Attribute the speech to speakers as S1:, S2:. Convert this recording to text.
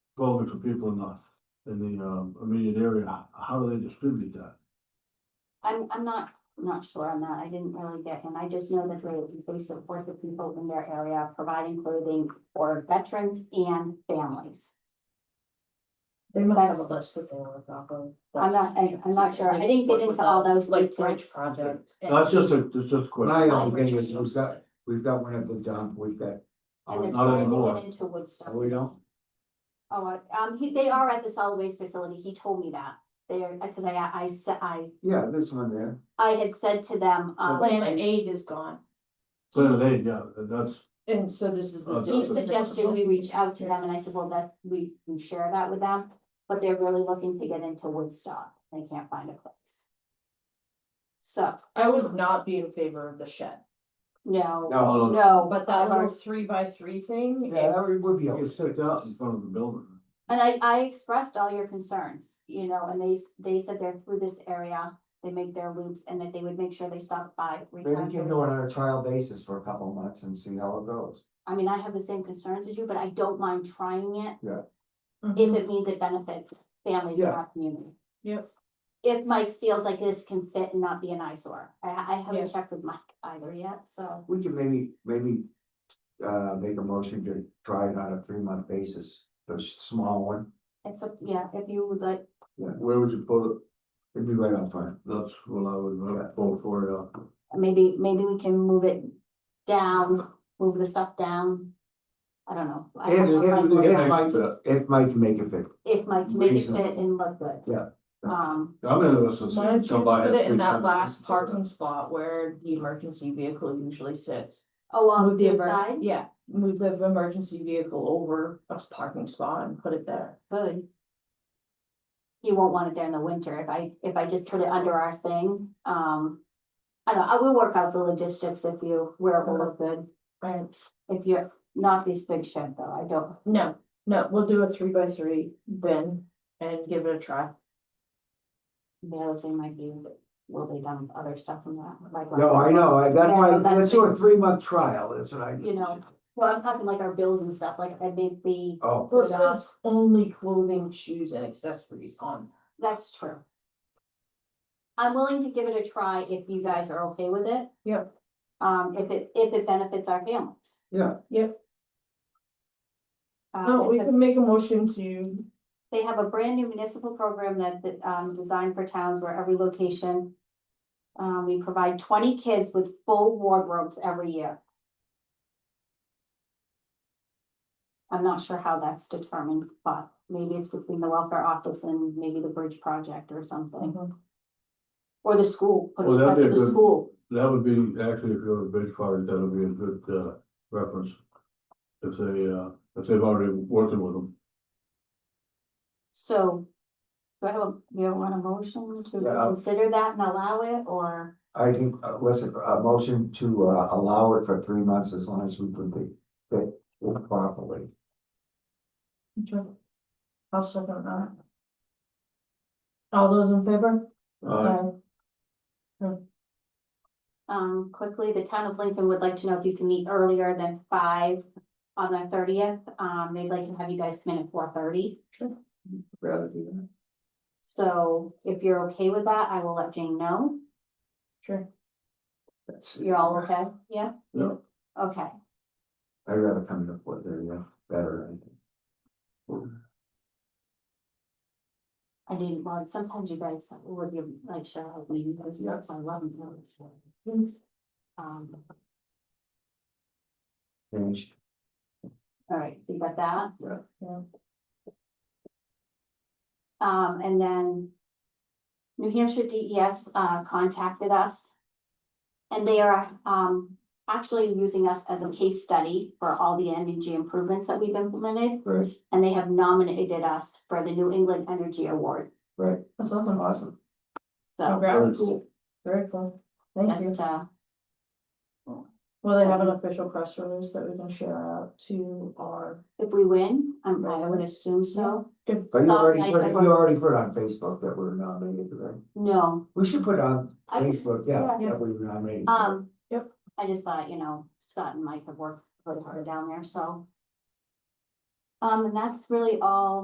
S1: going for people in the, in the, um, immediate area, h- how do they distribute that?
S2: I'm, I'm not, not sure on that, I didn't really get, and I just know that they, they support the people in their area, providing clothing for veterans and families.
S3: They must have
S2: That's-
S3: a list that they work off of.
S2: I'm not- I- I'm not sure. I didn't get into all those
S3: Like Bridge
S2: details.
S3: Project. and-
S1: That's just a, that's just a
S4: My
S1: question.
S4: only thing
S3: Bridge
S4: is, we've got, we've got one of the dump, we've got.
S2: And they're
S1: not
S2: trying to
S1: anymore.
S2: get into Woodstock.
S4: Oh, we don't,
S2: Oh, I- um, he, they are at the solid waste facility, he told me that, they're, because I, I, sa- I,
S4: yeah, this one there,
S2: I had said to them,
S4: So
S2: um,
S3: Plan aid is gone,
S1: So they, yeah, that's,
S3: and so this is the.
S1: Uh,
S2: he
S1: That's a-
S2: suggested we reach out to them, and I said, well, that, we, we share that with them, but they're really looking to get into Woodstock, they can't find a place. So,
S3: I would not be in favor of the shed,
S2: no,
S4: no,
S1: no,
S2: no,
S3: but that little three by three thing,
S4: yeah,
S3: it-
S4: that would- would be.
S1: it's sticked out in front of the building.
S2: And I, I expressed all your concerns, you know, and they, s- they said they're through this area, they make their loops and that they would make sure they stop by three
S4: Maybe
S2: times. a
S4: give it one
S2: week.
S4: on a trial basis for a couple of months and see how it goes.
S2: I mean, I have the same concerns as you, but I don't mind trying it if
S3: Mhm.
S2: it means it benefits families in
S4: Yeah.
S2: our community.
S3: Yep.
S2: If Mike feels like this can fit and not be an eyesore, I, I
S3: Yeah.
S2: haven't checked with Mike either yet, so.
S4: We could maybe, maybe, uh, make a motion to try it on a three month basis, the s- small one,
S2: It's a, yeah, if you would like,
S4: yeah, where would you put it? It'd be right on front.
S1: That's what I would uh, vote for, for, yeah.
S2: maybe, maybe we can move it down, move the stuff down. I don't know. I
S4: And,
S2: don't know.
S4: and,
S2: Mike-
S4: and Mike, it might make it fit,
S2: if my committee fit
S4: Reasonable.
S2: and look good.
S4: Yeah.
S2: Um,
S1: I'm in this,
S3: Why don't
S1: is
S3: you
S1: somebody.
S3: put it in that last parking spot where the emergency vehicle usually sits?
S2: along
S3: Move the
S2: the
S3: emer-
S2: side,
S3: Yeah, move the emergency vehicle over a parking spot and put it there.
S2: good. You won't want it there in the winter if I, if I just put it under our thing, um. I don't, I will work out the logistics if you, where it will look good,
S3: Right.
S2: if you're not this big shed though, I don't,
S3: No, no, we'll do a three by three bin and give it a try.
S2: the other thing might be. Will they dump other stuff from that, like.
S4: no, I know, I- that's
S2: Yeah,
S4: why,
S2: that's-
S4: let's do a three month trial, that's what I.
S2: You know. Well, I'm talking like our bills and stuff, like I think the,
S4: Oh,
S3: Well, it says only clothing, shoes and accessories on.
S2: that's true. I'm willing to give it a try if you guys are okay with it.
S3: Yep.
S2: Um, if it, if it benefits our families.
S4: Yeah.
S3: Yep.
S2: Uh,
S3: No,
S2: it
S3: we
S2: says
S3: can make a motion to,
S2: they have a brand new municipal program that, that, um, designed for towns where every location. Um, we provide twenty kids with full wardrobes every year. I'm not sure how that's determined, but maybe it's between the welfare office and maybe the bridge project or something,
S3: Mhm.
S2: or the school, put
S1: Well,
S2: it
S1: that'd
S2: up
S1: be
S2: to
S1: a
S2: the
S1: good-
S2: school.
S1: That would be, actually, if you're a bridge party, that would be a good, uh, reference. If they, uh, if they've already working with them.
S2: So. Do I have a, do you want a motion to
S4: Yeah.
S2: consider that and allow it, or?
S4: I think, uh, listen, a motion to uh allow it for three months as long as we can be fit it properly.
S3: I'll second that. All those in favor?
S1: Uh,
S2: Um, quickly, the town of Lincoln would like to know if you can meet earlier than five on the thirtieth. Um, they'd like to have you guys come in at four thirty.
S4: Rather do
S2: So if you're okay with that, I will let Jane know.
S3: Sure.
S4: that. That's-
S2: You're all okay? Yeah?
S1: Yeah.
S2: Okay,
S4: I'd rather come to what they're yeah, better. I think.
S2: I didn't, well, sometimes you guys would give like Cheryl's meeting, those
S4: Yeah.
S2: notes, I love them.
S3: Mm.
S2: Um,
S4: And she-
S2: all right, so you got that?
S4: Yeah.
S3: Yeah.
S2: Um, and then New Hampshire DES uh contacted us. And they are um actually using us as a case study for all the energy improvements that we've implemented.
S4: Right,
S2: And they have nominated us for the New England Energy Award,
S4: right,
S3: That's awesome.
S4: awesome.
S1: Very
S2: so
S3: Congrats,
S1: cool.
S3: very cool, thank you.
S2: just uh,
S3: Will they have an official press release that we can share out to our,
S2: if we win, um, I would assume so.
S4: But
S2: Um,
S4: you already,
S2: I-
S4: put-
S2: I
S4: you
S2: want-
S4: already put on Facebook that we're nominated, right?
S2: No,
S4: We should put on
S2: I-
S4: Facebook, yeah,
S3: yeah.
S4: that we were nominated.
S2: um.
S3: Yep.
S2: I just thought, you know, Scott and Mike have worked really hard down there, so. Um, and that's really all